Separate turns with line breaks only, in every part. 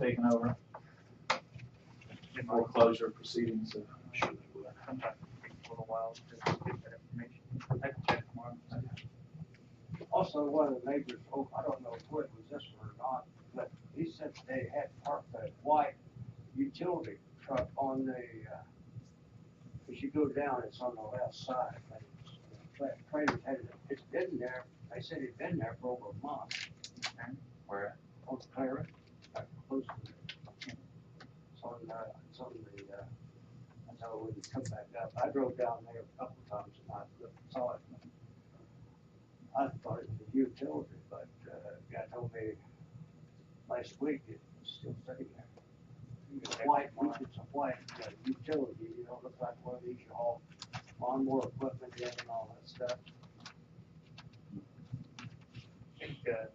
taken over in foreclosure
uh,
proceedings. so I'm sure they will.
I'm not for a while, just to get that information. I can check tomorrow.
Also, one of the neighbors, oh, I don't know if it was this one or not, but he said they had parked a white utility truck on the, uh, as you go down, it's on the left side, but it's- the tra- trailer's had, it- it's been there, they said it'd been there for over a month
Where?
on Clara, uh, close to there. It's on, uh, it's on the, uh, I know when you come back up, I drove down there a couple times and I looked- saw it. I thought it was a utility, but, uh, guy told me last week it was still sitting there. It's a white, one, it's a white uh, utility, you know, looks like one of these you haul lawnmower equipment in and all that stuff.
I think, uh,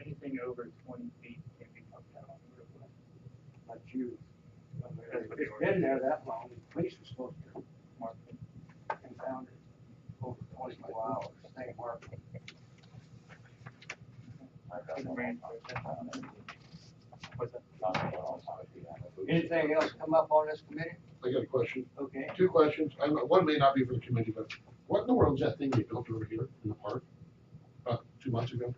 anything over twenty feet can be pumped out on the roadway.
But you, I mean,
That's what they
it's been there that long, the police were supposed to
Mark,
and found it over twenty-four hours, they worked.
What's that?
Anything else come up on this committee?
I got a question,
Okay,
two questions, I'm, one may not be for the committee, but what in the world is that thing they built over here in the park? About two months ago?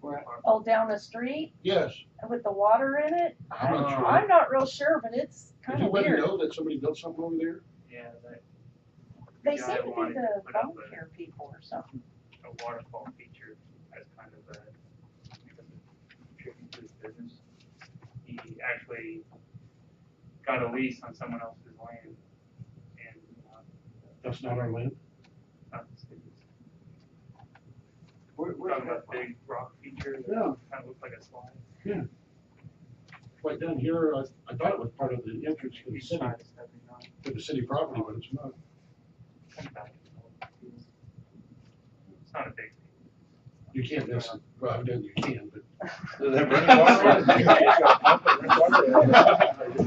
we're at
Oh, down the street
Yes,
with the water in it?
I'm not sure.
Oh, I'm not real sure, but it's
Uh-huh. Did
kind
you
of
let me
weird.
know that somebody built something over there?
Yeah, that,
They
Yeah,
seem
I
to be
wanted to
the
put up
bone
a-
care people or something.
a waterfall feature as kind of a, because of contributing to his business. He actually got a lease on someone else's land and, uh,
That's not our land?
not the city's.
Where,
We're
where's
talking
that
about big rock feature that
Yeah.
kind of looks like a slide.
Right down here, I, I thought it was part of the entrance to the
Each
city,
side is seventy nine,
to the city property, but it's not.
kind of back and forth. It's not a big.
You can't miss it, well, evidently you can, but.
Does that bring water?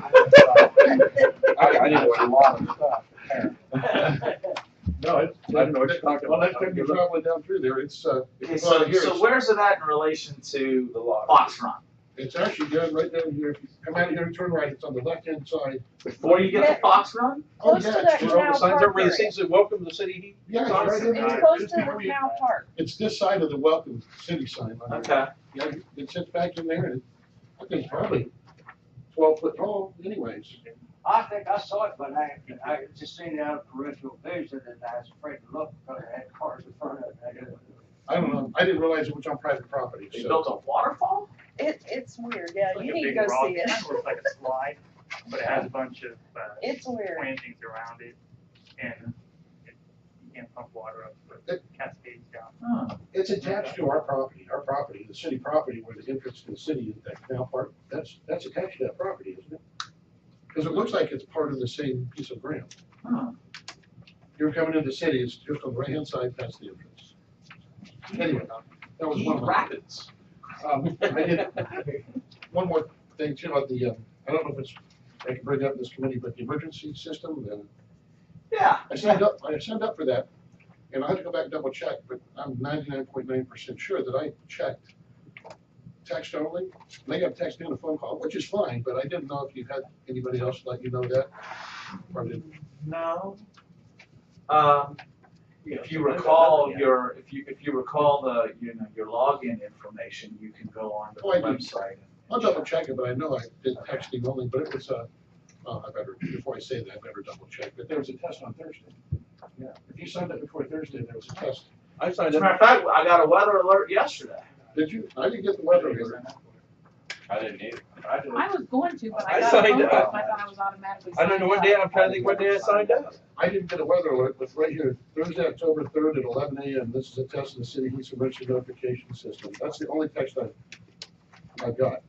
I, I didn't want No, it's, I don't know what you're talking
Well,
about.
that could be traveling down through there, it's, uh, if
Okay,
you go out
so,
of here,
so
it's-
where's it at in relation to
The lot.
Fox Run?
it's actually down right down here, if you come out of here and turn right, it's on the left-hand side.
Before you get to Fox Run?
Oh,
Close to
yeah, it's
that
Where
canal
all the signs are,
park
where it
area.
says welcome to city heat?
Yeah, it's right in
It's
there.
close to
Just
the
before you-
canal park.
It's this side of the welcome city sign. by the way.
Okay.
Yeah, it sits back in there and I think it's probably twelve foot tall anyways.
I think I saw it, but I, I just seen it out of peripheral vision and I was afraid to look because it had cars in front of it. I didn't-
I don't know, I didn't realize it was on private property,
They
so.
built a waterfall?
It, it's weird, yeah,
Like
you
a
need to
big
go
rock.
see it.
It looks like a slide, but it has a bunch of, uh,
It's weird.
plantings around it and it, you can't pump water up, but it cascades down.
It's attached to our property, our property, the city property where the entrance to the city is that canal park, that's, that's attached to that property, isn't it? Cause it looks like it's part of the same piece of ground.
Hmm.
You're coming into the city, it's just on the right hand side past the entrance. Anyway, uh, that was one
Heat
of my.
Rapids.
Um, I did, one more thing too, about the, uh, I don't know if it's, I can bring it up in this committee, but the emergency system, uh,
Yeah.
I signed up, I signed up for that, and I had to go back and double check, but I'm ninety-nine point nine percent sure that I checked text only, and I got text and a phone call, which is fine, but I didn't know if you had anybody else let you know that, or did
No. Um, if you recall your, if you, if you recall the, you know, your login information, you can go on the
Oh, I do.
website.
I'll double check it, but I know I did texting only, but it was, uh, well, I better, before I say that, I better double check, but there was a test on Thursday. Yeah, if you signed up before Thursday, there was a test.
I
As
signed
a matter of
up,
fact, I got a weather alert yesterday.
Did you, I didn't get the weather alert.
I didn't either.
I did.
I was going to, but
I
I got a phone
signed
call,
up.
so I thought I was automatically
I don't know what
signed
day,
up.
I'm trying to think what day I signed up.
I didn't get a weather alert, but right here, Thursday, October third at eleven AM, this is a test of the city heat emergency notification system. That's the only text I, I got.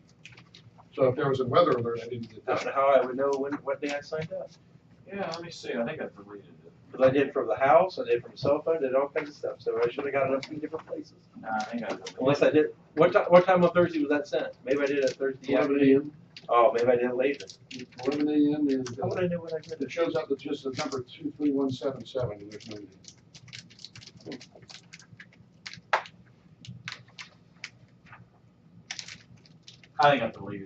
So if there was a weather alert, I didn't get
I don't know
that.
how I would know when, what day I signed up.
Yeah, let me see, I think I deleted it.
Cause I did from the house, I did from cell phone, did all kinds of stuff, so I should've got it up from different places.
No, I think I deleted it.
Unless I did, what ti- what time on Thursday was that sent? Maybe I did it Thursday
Eleven
afternoon.
AM,
Oh, maybe I did it later.
eleven AM and
How
uh,
would I know what I did?
it shows up with just the number two three one seven seven and there's no name.
I think I deleted it.